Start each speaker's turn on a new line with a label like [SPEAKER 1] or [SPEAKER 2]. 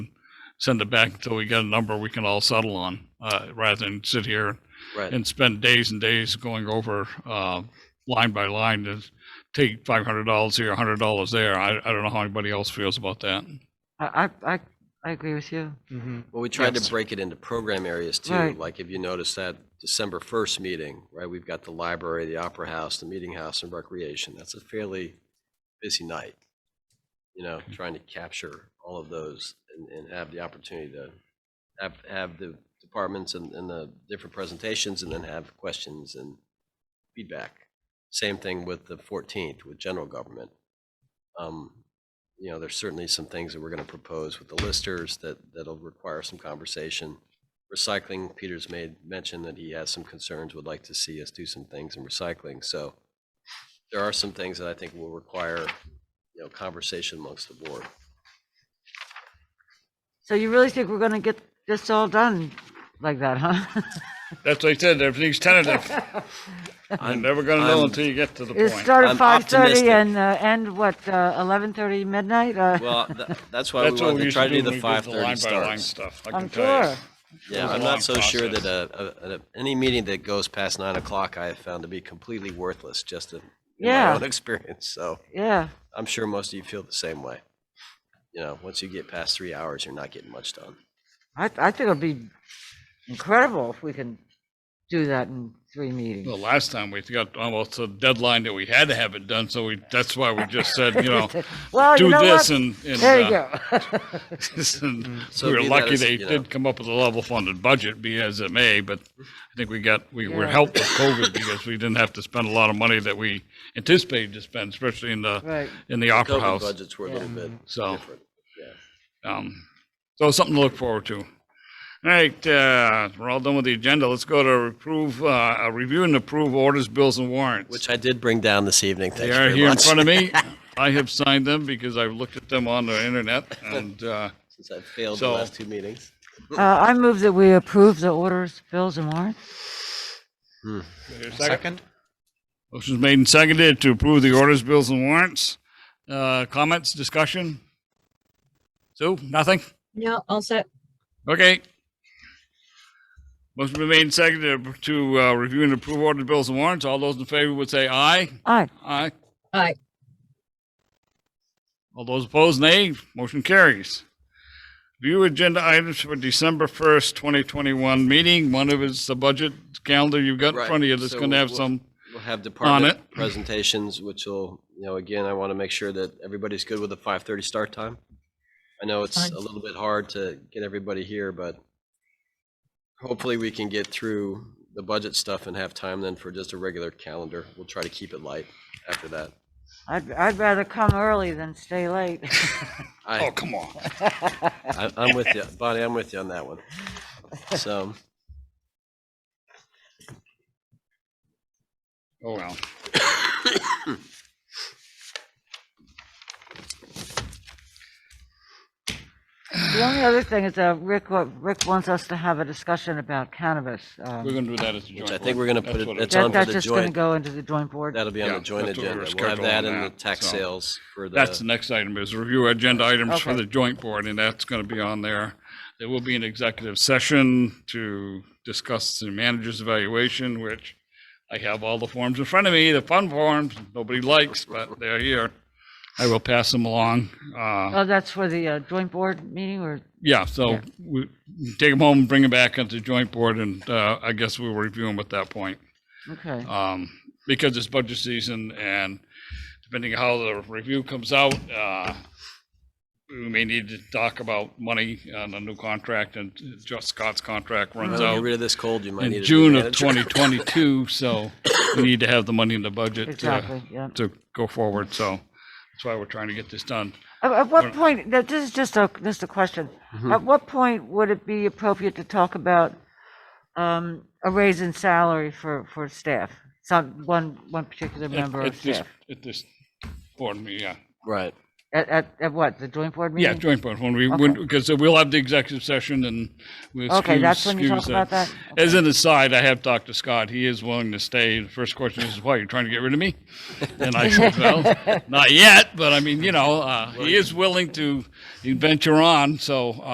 [SPEAKER 1] send it back until we get a number we can all settle on, uh, rather than sit here
[SPEAKER 2] Right.
[SPEAKER 1] and spend days and days going over, uh, line by line to take five hundred dollars here, a hundred dollars there. I, I don't know how anybody else feels about that.
[SPEAKER 3] I, I, I, I agree with you.
[SPEAKER 2] Well, we tried
[SPEAKER 1] Yes.
[SPEAKER 2] to break it into program areas too.
[SPEAKER 3] Right.
[SPEAKER 2] Like if you notice that December 1st meeting, right, we've got the library, the opera house, the meeting house and recreation. That's a fairly busy night. You know, trying to capture all of those and, and have the opportunity to have, have the departments and, and the different presentations and then have questions and feedback. Same thing with the 14th with general government. Um, you know, there's certainly some things that we're going to propose with the listers that, that'll require some conversation. Recycling, Peter's made mention that he has some concerns, would like to see us do some things in recycling. So there are some things that I think will require, you know, conversation amongst the board.
[SPEAKER 3] So you really think we're gonna get this all done like that, huh?
[SPEAKER 1] That's what I said, everything's tentative. You're
[SPEAKER 2] I'm-
[SPEAKER 1] never gonna
[SPEAKER 2] I'm-
[SPEAKER 1] know until you get to the
[SPEAKER 3] It
[SPEAKER 1] point.
[SPEAKER 3] start
[SPEAKER 2] I'm
[SPEAKER 3] at five thirty
[SPEAKER 2] optimistic.
[SPEAKER 3] and uh, end what, uh, eleven thirty midnight? Uh,
[SPEAKER 2] Well, tha- that's why we
[SPEAKER 1] That's what
[SPEAKER 2] wanted
[SPEAKER 1] we
[SPEAKER 2] to
[SPEAKER 1] used
[SPEAKER 2] try
[SPEAKER 1] to
[SPEAKER 2] to
[SPEAKER 1] do
[SPEAKER 2] do
[SPEAKER 1] when
[SPEAKER 2] the
[SPEAKER 1] we did the line
[SPEAKER 2] 5:30
[SPEAKER 1] by line
[SPEAKER 2] starts.
[SPEAKER 1] stuff, I can
[SPEAKER 3] I'm
[SPEAKER 1] tell you.
[SPEAKER 3] sure.
[SPEAKER 2] Yeah,
[SPEAKER 1] was a
[SPEAKER 2] I'm
[SPEAKER 1] long
[SPEAKER 2] not so sure that
[SPEAKER 1] process.
[SPEAKER 2] a, a- a- any meeting that goes past nine o'clock, I have found to be completely worthless, just in in my
[SPEAKER 3] Yeah.
[SPEAKER 2] own experience, so.
[SPEAKER 3] Yeah,
[SPEAKER 2] I'm sure most of you feel the same way. You know, once you get past three hours, you're not getting much done.
[SPEAKER 3] I, I think it'll be incredible if we can do that in three meetings.
[SPEAKER 1] The last time we got almost a deadline that we had to have it done, so we, that's why we just said, you know,
[SPEAKER 3] Well, Oh, you
[SPEAKER 1] do
[SPEAKER 3] know
[SPEAKER 1] this
[SPEAKER 3] what?
[SPEAKER 1] and. and,
[SPEAKER 3] There
[SPEAKER 1] uh,
[SPEAKER 3] you go.
[SPEAKER 1] and
[SPEAKER 3] Mm-hmm.
[SPEAKER 2] So
[SPEAKER 1] We were
[SPEAKER 2] be that
[SPEAKER 1] lucky
[SPEAKER 2] as,
[SPEAKER 1] they
[SPEAKER 2] you know.
[SPEAKER 1] did come up with a level funded budget, be as it may, but I think we got, we were
[SPEAKER 3] Yeah.
[SPEAKER 1] helped with COVID because we didn't have to spend a lot of money that we anticipated to spend, especially in the,
[SPEAKER 3] Right.
[SPEAKER 1] in the opera
[SPEAKER 2] COVID
[SPEAKER 1] house.
[SPEAKER 2] budgets were a little bit
[SPEAKER 1] So.
[SPEAKER 2] different.
[SPEAKER 1] Um, so something to look forward to. All right, uh, we're all done with the agenda. Let's go to approve, uh, uh, review and approve orders, bills and warrants.
[SPEAKER 2] Which I did bring down this evening. Thank
[SPEAKER 1] They
[SPEAKER 2] you
[SPEAKER 1] are
[SPEAKER 2] very
[SPEAKER 1] here in
[SPEAKER 2] much.
[SPEAKER 1] front of me. I have signed them because I've looked at them on the internet and, uh,
[SPEAKER 2] Since I failed the
[SPEAKER 1] So-
[SPEAKER 2] last two meetings.
[SPEAKER 3] Uh, I move that we approve the orders, bills and warrants.
[SPEAKER 4] Second?
[SPEAKER 1] Motion's made and seconded to approve the orders, bills, and warrants. Uh, Comments, discussion? Sue, nothing?
[SPEAKER 5] No, all set.
[SPEAKER 1] Okay. Motion been made and seconded to uh, review and approve ordered bills and warrants. All those in favor would say aye.
[SPEAKER 3] Aye.
[SPEAKER 1] Aye.
[SPEAKER 5] Aye.
[SPEAKER 1] All those opposed, nay. Motion carries. View agenda items for December 1st, 2021 meeting. One of it's the budget calendar you've got in
[SPEAKER 2] Right,
[SPEAKER 1] front of you that's
[SPEAKER 2] so
[SPEAKER 1] going to have
[SPEAKER 2] we'll-
[SPEAKER 1] some.
[SPEAKER 2] We'll have department
[SPEAKER 1] it.
[SPEAKER 2] presentations, which will, you know, again, I want to make sure that everybody's good with the 5:30 start time. I know it's
[SPEAKER 5] Fine.
[SPEAKER 2] a little bit hard to get everybody here, but hopefully we can get through the budget stuff and have time then for just a regular calendar. We'll try to keep it light after that.
[SPEAKER 3] I'd, I'd rather come early than stay late.
[SPEAKER 2] I,
[SPEAKER 1] Oh, come on.
[SPEAKER 2] I, I'm with you, Bonnie. I'm with you on that one. So,
[SPEAKER 1] Oh, well.
[SPEAKER 3] The only other thing is that Rick, wa- Rick wants us to have a discussion about cannabis. um,
[SPEAKER 1] We're going to do that as a joint.
[SPEAKER 2] I think we're gonna put it- it's on for
[SPEAKER 3] That, that's
[SPEAKER 2] the
[SPEAKER 3] just gonna
[SPEAKER 2] joint.
[SPEAKER 3] go into the joint board.
[SPEAKER 2] that'll be on
[SPEAKER 1] Yeah,
[SPEAKER 2] the joint
[SPEAKER 1] that's what we were
[SPEAKER 2] agenda. We'll have
[SPEAKER 1] scheduling
[SPEAKER 2] that and the
[SPEAKER 1] that,
[SPEAKER 2] tax
[SPEAKER 1] so.
[SPEAKER 2] sales for the.
[SPEAKER 1] That's the next item is review agenda items for
[SPEAKER 3] Okay.
[SPEAKER 1] the joint board, and that's going to be on there. There will be an executive session to discuss the manager's evaluation, which I have all the forms in front of me, the fun forms, nobody likes, but they're here. I will pass them along. Uh,
[SPEAKER 3] Oh, that's for the uh, joint board meeting or,
[SPEAKER 1] Yeah, so we take them home, and bring them back onto the joint board, and uh, I guess we'll review them at that point
[SPEAKER 3] okay.
[SPEAKER 1] um, because it's budget season and depending how the review comes out, uh, we may need to talk about money on a new contract and just Scott's contract runs
[SPEAKER 2] Well, get
[SPEAKER 1] out
[SPEAKER 2] rid of this cold. You might Uh-huh. need a
[SPEAKER 1] in
[SPEAKER 2] new
[SPEAKER 1] June of
[SPEAKER 2] manager.
[SPEAKER 1] 2022, so we need to have the money in the budget to,
[SPEAKER 3] Exactly, yeah.
[SPEAKER 1] to go forward, so that's why we're trying to get this done.
[SPEAKER 3] At, at what point, that- this is just a, just a question.
[SPEAKER 2] Mm-hmm.
[SPEAKER 3] At what point would it be appropriate to talk about um, a raise in salary for, for staff? Some, one, one particular member
[SPEAKER 1] At
[SPEAKER 3] of
[SPEAKER 1] this,
[SPEAKER 3] staff?
[SPEAKER 1] at this board meeting, yeah.
[SPEAKER 2] Right.
[SPEAKER 3] At, at, at what, the joint board
[SPEAKER 1] Yeah,
[SPEAKER 3] meeting?
[SPEAKER 1] joint board, when we, when, because we'll have the executive session and we'll.
[SPEAKER 3] Okay,
[SPEAKER 1] excuse-
[SPEAKER 3] that's when you talk
[SPEAKER 1] excuse uh,
[SPEAKER 3] about that?
[SPEAKER 1] As an aside, I have talked to Scott, he is willing to stay. The first question is, why, you're trying to get rid of me? And I said, well, not yet, but I mean, you know, uh, he is willing to venture on, so,